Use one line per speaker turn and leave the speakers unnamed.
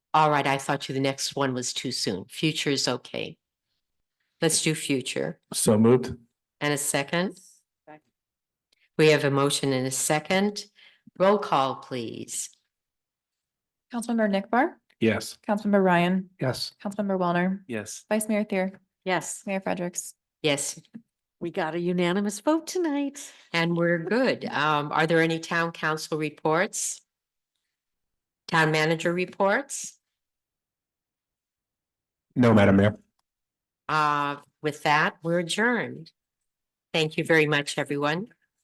All right, I thought you, the next one was too soon. Future is okay. Let's do future.
So moved.
And a second? We have a motion and a second. Roll call, please.
Councilmember Nick Bar,
Yes.
Councilmember Ryan,
Yes.
Councilmember Wellner,
Yes.
Vice Mayor Thier,
Yes.
Mayor Fredericks.
Yes,
We got a unanimous vote tonight.
and we're good. Um, are there any town council reports? Town manager reports?
No, Madam Mayor.
Uh, with that, we're adjourned. Thank you very much, everyone.